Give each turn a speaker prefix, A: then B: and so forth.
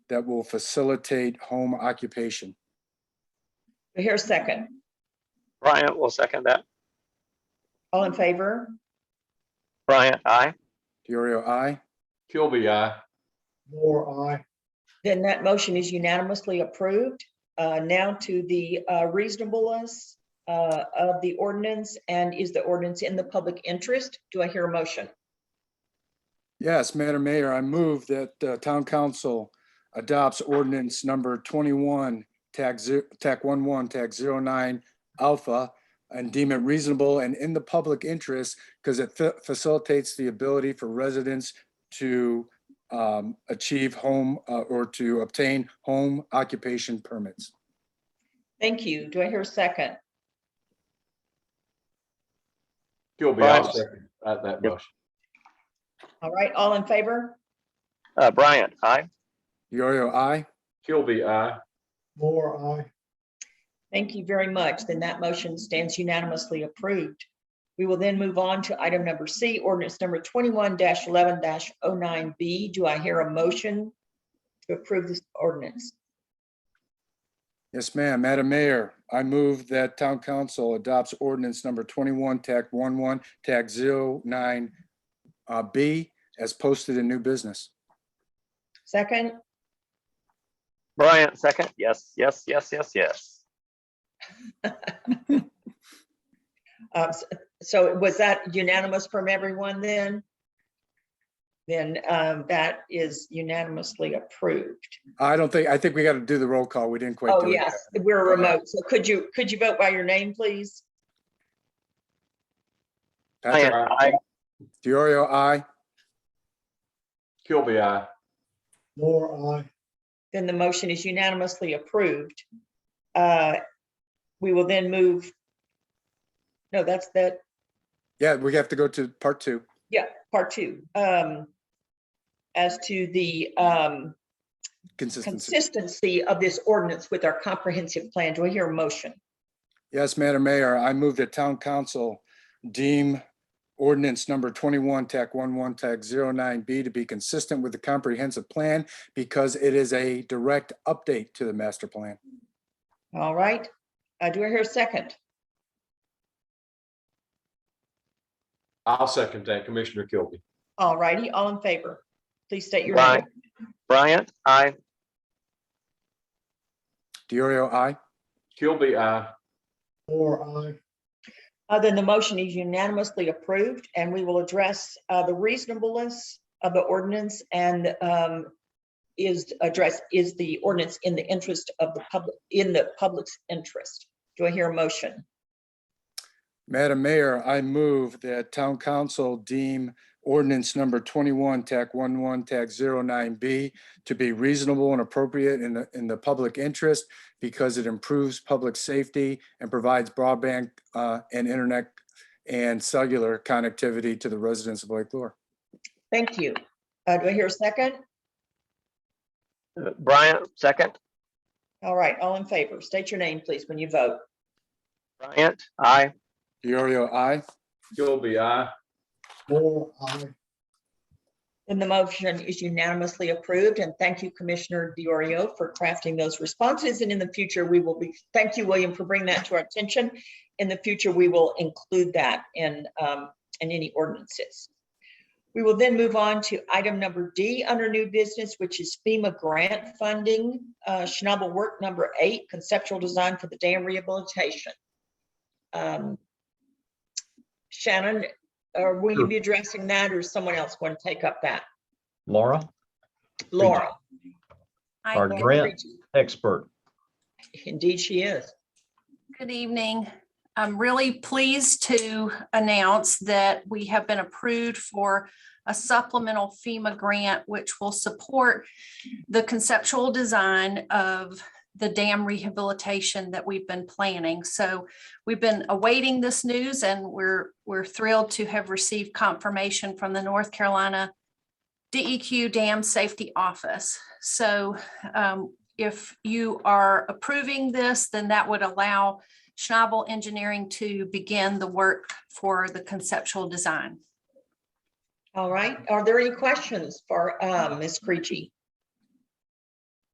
A: that will facilitate home occupation.
B: Do I hear a second?
C: Bryant will second that.
B: All in favor?
C: Bryant, aye.
A: Diorio, I.
D: Kilby, aye.
E: Moore, aye.
B: Then that motion is unanimously approved. Uh, Now to the uh, reasonableness uh, of the ordinance and is the ordinance in the public interest? Do I hear a motion?
A: Yes, Madam Mayor, I move that uh, Town Council adopts ordinance number 21, TAC, ze- TAC 11, TAC 09, Alpha, and deem it reasonable and in the public interest because it fa- facilitates the ability for residents to um, achieve home uh, or to obtain home occupation permits.
B: Thank you. Do I hear a second?
D: Kilby, I'll
C: Bryant.
D: second that, that
C: Yep.
D: motion.
B: All right, all in favor?
C: Uh, Bryant, aye.
A: Diorio, I.
D: Kilby, aye.
E: Moore, aye.
B: Thank you very much. Then that motion stands unanimously approved. We will then move on to item number C, ordinance number twenty-one eleven 9 B. Do I hear a motion to approve this ordinance?
A: Yes, ma'am. Madam Mayor, I move that town council adopts ordinance number twenty-one, TAC one-one, TAC zero-nine, uh, B, as posted in new business.
B: Second,
C: Bryant, second. Yes, yes, yes, yes, yes.
B: uh, s- so was that unanimous from everyone then? Then, um, that is unanimously approved.
A: I don't think, I think we got to do the roll call. We didn't quite
B: Oh,
A: do it.
B: yes, we're remote. So could you, could you vote by your name, please?
A: Patrick
C: Bryant, aye.
A: Diorio, I.
D: Kilby, aye.
E: Moore, aye.
B: Then the motion is unanimously approved. Uh, We will then move. No, that's that,
A: Yeah, we have to go to part two.
B: part two. Um, As to the um,
A: Consistency.
B: consistency of this ordinance with our comprehensive plan, do I hear a motion?
A: Yes, Madam Mayor, I move that town council deem ordinance number twenty-one, TAC one-one, TAC zero-nine B to be consistent with the comprehensive plan because it is a direct update to the master plan.
B: All right, Uh, do I hear a second?
D: I'll second that, Commissioner Kilby.
B: All righty, all in favor, please state your name.
C: Bryant, Bryant, aye.
A: Diorio, I.
D: Kilby, aye.
E: Moore, aye.
B: Uh, Then the motion is unanimously approved and we will address uh, the reasonableness of the ordinance and um, is address, is the ordinance in the interest of the public, in the public's interest? Do I hear a motion?
A: Madam Mayor, I move that town council deem ordinance number twenty-one, TAC one-one, TAC zero-nine B to be reasonable and appropriate in the, in the public interest because it improves public safety and provides broadband uh, and internet and cellular connectivity to the residents of Lake Lure.
B: Thank you. Uh, Do I hear a second?
C: Uh, Bryant, second.
B: All right, all in favor, state your name, please, when you vote.
C: Bryant, aye.
A: Diorio, I.
D: Kilby, aye.
E: Moore, aye.
B: Then the motion is unanimously approved, and thank you, Commissioner Diorio, for crafting those responses. And in the future, we will be, thank you, William, for bringing that to our attention. In the future, we will include that in, um, in any ordinances. We will then move on to item number D under new business, which is FEMA grant funding, uh, Schnabel work number eight, conceptual design for the dam rehabilitation. Um, Shannon, or will you be addressing that, or is someone else going to take up that?
F: Laura,
B: Laura.
G: Hi,
F: our
G: Laura.
F: grant expert.
B: Indeed, she is.
G: Good evening. I'm really pleased to announce that we have been approved for a supplemental FEMA grant, which will support the conceptual design of the dam rehabilitation that we've been planning. So we've been awaiting this news and we're, we're thrilled to have received confirmation from the North Carolina DEQ Dam Safety Office. So um, if you are approving this, then that would allow Schnabel Engineering to begin the work for the conceptual design.
B: All right. Are there any questions for uh, Ms. Creechy?